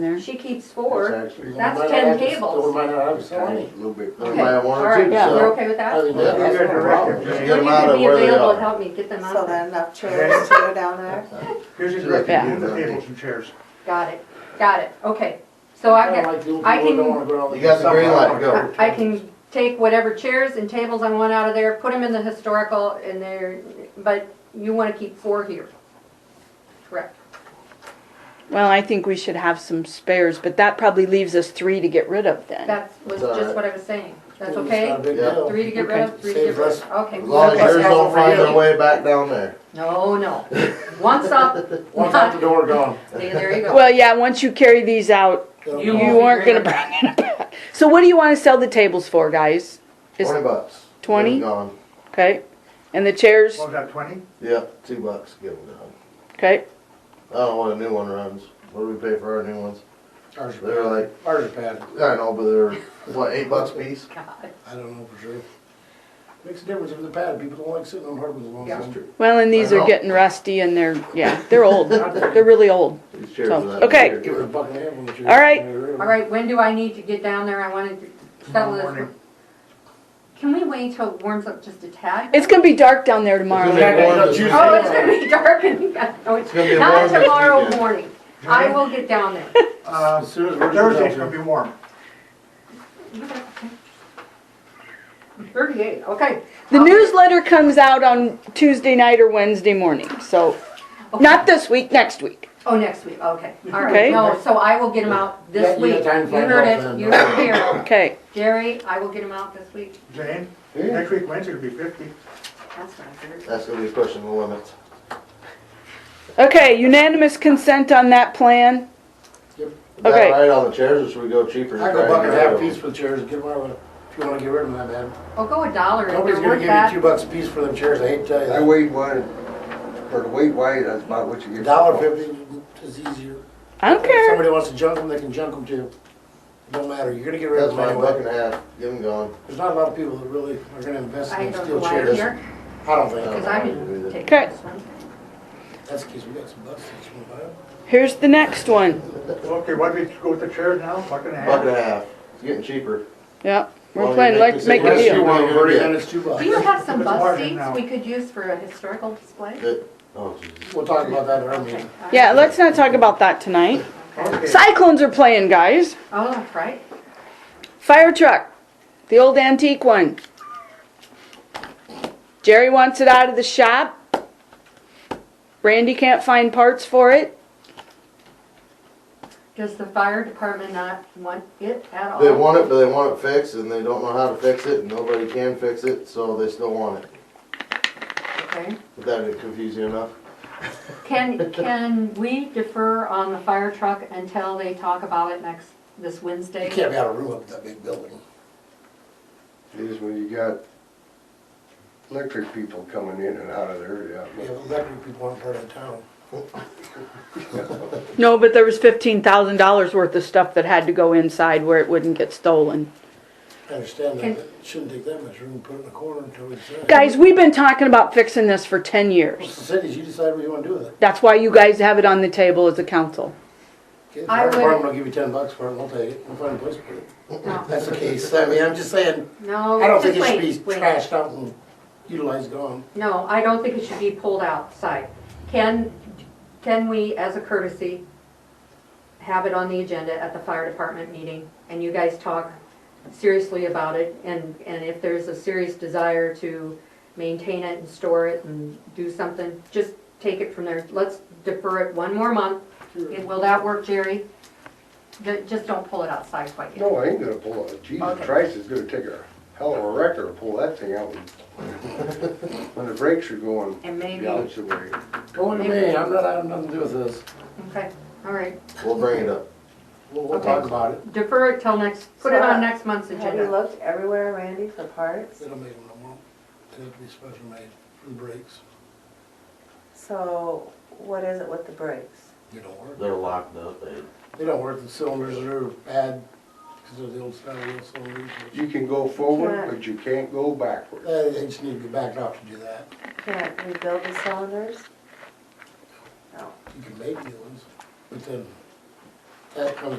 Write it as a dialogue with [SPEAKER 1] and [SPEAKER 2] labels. [SPEAKER 1] there.
[SPEAKER 2] She keeps four.
[SPEAKER 3] It's actually-
[SPEAKER 2] That's
[SPEAKER 3] We might
[SPEAKER 2] 10
[SPEAKER 3] have to-
[SPEAKER 2] tables.
[SPEAKER 3] We might not have
[SPEAKER 4] It's kind
[SPEAKER 3] twenty.
[SPEAKER 4] of a little bit.
[SPEAKER 3] We
[SPEAKER 2] Okay.
[SPEAKER 3] might have one
[SPEAKER 2] All
[SPEAKER 3] or two,
[SPEAKER 2] right,
[SPEAKER 1] Yeah.
[SPEAKER 2] you're
[SPEAKER 3] so.
[SPEAKER 2] okay with
[SPEAKER 3] I
[SPEAKER 2] that?
[SPEAKER 3] think that-
[SPEAKER 4] Yeah.
[SPEAKER 3] that's not a problem.
[SPEAKER 4] Just
[SPEAKER 3] Just
[SPEAKER 4] get
[SPEAKER 3] get
[SPEAKER 2] Would
[SPEAKER 3] them
[SPEAKER 2] you
[SPEAKER 3] out of
[SPEAKER 2] be
[SPEAKER 3] where they
[SPEAKER 2] available to
[SPEAKER 3] are.
[SPEAKER 2] help me get them
[SPEAKER 5] So
[SPEAKER 2] out there?
[SPEAKER 5] then enough chairs to go down there.
[SPEAKER 4] Here's your
[SPEAKER 1] they can
[SPEAKER 4] direction,
[SPEAKER 1] do
[SPEAKER 4] move the
[SPEAKER 1] that.
[SPEAKER 4] tables and chairs.
[SPEAKER 2] Got it, got it, okay. So I
[SPEAKER 3] Kinda
[SPEAKER 2] can,
[SPEAKER 3] like you
[SPEAKER 2] I
[SPEAKER 3] people
[SPEAKER 2] can-
[SPEAKER 3] don't wanna go out
[SPEAKER 4] You
[SPEAKER 3] and
[SPEAKER 4] got
[SPEAKER 3] do
[SPEAKER 4] the green
[SPEAKER 3] something.
[SPEAKER 4] light,
[SPEAKER 3] don't
[SPEAKER 4] go.
[SPEAKER 3] wanna
[SPEAKER 2] I can take whatever chairs and tables I want out of there, put them in the historical and there, but you wanna keep four here. Correct.
[SPEAKER 1] Well, I think we should have some spares, but that probably leaves us three to get rid of then.
[SPEAKER 2] That was
[SPEAKER 3] It's all
[SPEAKER 2] just
[SPEAKER 3] right.
[SPEAKER 2] what I was saying. That's
[SPEAKER 3] It's
[SPEAKER 2] okay?
[SPEAKER 3] not a big
[SPEAKER 4] Yeah.
[SPEAKER 3] deal.
[SPEAKER 2] Three to get rid of, three to get
[SPEAKER 3] Saves
[SPEAKER 2] rid
[SPEAKER 3] us-
[SPEAKER 2] of, okay.
[SPEAKER 4] As long as yours don't find their way back down there.
[SPEAKER 2] No, no. Once up,
[SPEAKER 3] Once out the door, gone.
[SPEAKER 2] there there you go.
[SPEAKER 1] Well, yeah, once you carry these out,
[SPEAKER 2] You
[SPEAKER 1] you
[SPEAKER 2] won't
[SPEAKER 1] aren't
[SPEAKER 2] be
[SPEAKER 1] gonna bring it back. So what do you wanna sell the tables for, guys? Is-
[SPEAKER 4] Twenty bucks.
[SPEAKER 1] 20?
[SPEAKER 4] Get 'em Gone.
[SPEAKER 1] Okay, and the chairs,
[SPEAKER 4] What was that, twenty? Yep, two bucks, get them gone.
[SPEAKER 1] okay,
[SPEAKER 4] I don't know what a new one runs. What do we pay for our new ones?
[SPEAKER 3] Ours are
[SPEAKER 4] They're like,
[SPEAKER 3] bad. Ours are bad.
[SPEAKER 4] I know, but they're, what, eight bucks a piece?
[SPEAKER 2] God.
[SPEAKER 3] I don't know for sure. Makes a difference if they're bad. People don't like sitting on hardwood as long as.
[SPEAKER 4] That's true.
[SPEAKER 1] well, and these
[SPEAKER 4] I
[SPEAKER 1] are
[SPEAKER 4] know.
[SPEAKER 1] getting rusty and they're, yeah, they're old, they're really old.
[SPEAKER 4] These chairs
[SPEAKER 1] So,
[SPEAKER 4] are that
[SPEAKER 1] okay.
[SPEAKER 4] big.
[SPEAKER 3] Give her a buck and a half when you're.
[SPEAKER 1] All right.
[SPEAKER 2] All right, when do I need to get down there? I wanted to settle
[SPEAKER 4] Tomorrow
[SPEAKER 2] this.
[SPEAKER 4] morning.
[SPEAKER 2] Can we wait till it warms up just a tad?
[SPEAKER 1] It's gonna be dark down there tomorrow.
[SPEAKER 4] It's gonna be warm this
[SPEAKER 3] Oh,
[SPEAKER 2] Oh, it's
[SPEAKER 4] weekend.
[SPEAKER 2] gonna be dark and, no, it's
[SPEAKER 4] It's gonna be warm
[SPEAKER 2] not
[SPEAKER 4] this
[SPEAKER 2] tomorrow
[SPEAKER 4] weekend.
[SPEAKER 2] morning. I will get down there.
[SPEAKER 4] Uh,
[SPEAKER 3] As soon as we're.
[SPEAKER 4] Thursday's gonna be warm.
[SPEAKER 2] Thirty-eight, okay.
[SPEAKER 1] The newsletter comes out on Tuesday night or Wednesday morning, so, not this week, next week.
[SPEAKER 2] Oh, next week, okay. All right,
[SPEAKER 1] Okay.
[SPEAKER 2] no, so I will get them out
[SPEAKER 3] Yeah,
[SPEAKER 2] this
[SPEAKER 3] you got
[SPEAKER 2] week. You
[SPEAKER 3] time to find
[SPEAKER 2] heard
[SPEAKER 3] out
[SPEAKER 2] it,
[SPEAKER 3] then.
[SPEAKER 2] you heard it here.
[SPEAKER 1] Okay,
[SPEAKER 2] Jerry, I will get them out this week.
[SPEAKER 4] Jane,
[SPEAKER 3] Yeah.
[SPEAKER 4] week Wednesday will be fifty.
[SPEAKER 2] That's what I heard.
[SPEAKER 4] That's gonna be pushing the limits.
[SPEAKER 1] okay, unanimous consent on that plan?
[SPEAKER 4] Is that
[SPEAKER 1] Okay.
[SPEAKER 4] right on the chairs or should we go cheaper?
[SPEAKER 3] I
[SPEAKER 4] and
[SPEAKER 3] go
[SPEAKER 4] try
[SPEAKER 3] buck
[SPEAKER 4] and
[SPEAKER 3] and a
[SPEAKER 4] get rid
[SPEAKER 3] half
[SPEAKER 4] of 'em?
[SPEAKER 3] piece for the chairs, give them out of, if you wanna get rid of them, that bad.
[SPEAKER 2] I'll go a dollar if
[SPEAKER 3] Nobody's
[SPEAKER 2] they're
[SPEAKER 3] gonna
[SPEAKER 2] worth
[SPEAKER 3] give you two
[SPEAKER 2] that.
[SPEAKER 3] bucks a piece for them chairs, I hate to tell you
[SPEAKER 6] I
[SPEAKER 3] that.
[SPEAKER 6] weigh one, for the weight weight, that's about what you
[SPEAKER 3] A
[SPEAKER 6] get.
[SPEAKER 3] dollar fifty is easier.
[SPEAKER 1] I don't
[SPEAKER 3] If
[SPEAKER 1] care.
[SPEAKER 3] somebody wants to junk them, they can junk them too. It Don't matter, you're gonna get rid of
[SPEAKER 4] That's
[SPEAKER 3] them
[SPEAKER 4] my buck
[SPEAKER 3] anyway.
[SPEAKER 4] and a half, get them gone.
[SPEAKER 3] There's not a lot of people that really are gonna invest
[SPEAKER 2] I
[SPEAKER 3] in
[SPEAKER 2] don't know
[SPEAKER 3] steel
[SPEAKER 2] why I'm
[SPEAKER 3] chairs.
[SPEAKER 2] here,
[SPEAKER 3] I don't think,
[SPEAKER 2] because I didn't take
[SPEAKER 1] Okay.
[SPEAKER 2] this one.
[SPEAKER 3] that's the case, we got some bucks that you wanna buy up.
[SPEAKER 1] Here's the next one.
[SPEAKER 7] Okay, why don't we go with the chairs now, buck and a
[SPEAKER 4] Buck and
[SPEAKER 7] half?
[SPEAKER 4] a half, it's getting cheaper.
[SPEAKER 1] Yep, we're
[SPEAKER 4] Well,
[SPEAKER 1] playing,
[SPEAKER 4] you
[SPEAKER 1] let's make a
[SPEAKER 4] decision.
[SPEAKER 3] Unless you
[SPEAKER 1] deal.
[SPEAKER 3] want
[SPEAKER 4] Yeah.
[SPEAKER 3] thirty, then it's two bucks.
[SPEAKER 2] Do you have some
[SPEAKER 7] It's
[SPEAKER 2] bus
[SPEAKER 7] larger
[SPEAKER 2] seats
[SPEAKER 7] now.
[SPEAKER 2] we could use for a historical display?
[SPEAKER 4] It- oh, Jesus.
[SPEAKER 3] We'll talk about that in our
[SPEAKER 2] Okay.
[SPEAKER 3] meeting.
[SPEAKER 1] Yeah, let's not talk about that tonight.
[SPEAKER 7] Okay,
[SPEAKER 1] Cyclones are playing, guys.
[SPEAKER 2] Oh, that's right.
[SPEAKER 1] Fire truck, the old antique one. Jerry wants it out of the shop. Randy can't find parts for it.
[SPEAKER 2] Does the fire department not want it at all?
[SPEAKER 4] They want it, but they want it fixed and they don't know how to fix it and nobody can fix it, so they still want it.
[SPEAKER 2] Okay.
[SPEAKER 4] If that didn't confuse you enough.
[SPEAKER 2] Can, can we defer on the fire truck until they talk about it next, this Wednesday?
[SPEAKER 3] You can't be out of room up in that big building.
[SPEAKER 6] Is when you got electric people coming in and out of there,
[SPEAKER 3] We have electric people on part of town.
[SPEAKER 1] No, but there was fifteen thousand dollars worth of stuff that had to go inside where it wouldn't get stolen.
[SPEAKER 3] I understand
[SPEAKER 2] Can-
[SPEAKER 3] that, but it shouldn't take that much room, put it in a corner until we decide.
[SPEAKER 1] Guys, we've been talking about fixing this for ten
[SPEAKER 3] It's
[SPEAKER 1] years.
[SPEAKER 3] the cities, you decide what you wanna do with it.
[SPEAKER 1] That's why you guys have it on the table as a council.
[SPEAKER 3] Okay,
[SPEAKER 2] I
[SPEAKER 3] fire
[SPEAKER 2] would-
[SPEAKER 3] department will give you ten bucks for it, and we'll take it, we'll find a place for it.
[SPEAKER 2] No,
[SPEAKER 3] That's the case, I mean, I'm just saying, I
[SPEAKER 2] no,
[SPEAKER 3] don't think
[SPEAKER 2] just
[SPEAKER 3] it should
[SPEAKER 2] Oh, wait,
[SPEAKER 3] be
[SPEAKER 2] wait.
[SPEAKER 3] trashed out and utilized gone.
[SPEAKER 2] No, I don't think it should be pulled outside. Can, can we, as a courtesy, have it on the agenda at the fire department meeting? And you guys talk seriously about it, and, and if there's a serious desire to maintain it and store it and do something, just take it from there. Let's defer it one more month. And Will that work, Jerry? Ju- Just don't pull it outside quite
[SPEAKER 6] yeah.
[SPEAKER 2] yet.
[SPEAKER 6] No, I ain't gonna pull it,
[SPEAKER 2] Okay.
[SPEAKER 6] Jesus Christ, it's gonna take a hell of a wrecker to pull that thing out. when- When the brakes are going
[SPEAKER 2] And
[SPEAKER 6] the
[SPEAKER 2] maybe,
[SPEAKER 6] opposite way.
[SPEAKER 3] Go to me, I'm not, I have nothing to do with this.
[SPEAKER 2] okay, all right.
[SPEAKER 4] We'll bring it up.
[SPEAKER 3] We'll, we'll
[SPEAKER 2] Okay.
[SPEAKER 3] talk about it.
[SPEAKER 2] Defer it till next, put it on next month's
[SPEAKER 5] Have you
[SPEAKER 2] agenda.
[SPEAKER 5] looked everywhere, Randy, for parts?
[SPEAKER 3] They don't make them no more. They have to be special made for the brakes.
[SPEAKER 5] So what is it with the brakes?
[SPEAKER 3] They don't work.
[SPEAKER 4] They're locked up, they.
[SPEAKER 3] They don't work, the cylinders are bad because they're the old style wheel cylinders.
[SPEAKER 6] You can go forward,
[SPEAKER 5] Right.
[SPEAKER 6] but you can't go backward.
[SPEAKER 3] Uh, They just need to be backed off to do that.
[SPEAKER 5] Can't rebuild the cylinders?
[SPEAKER 3] You can make new ones, but then that comes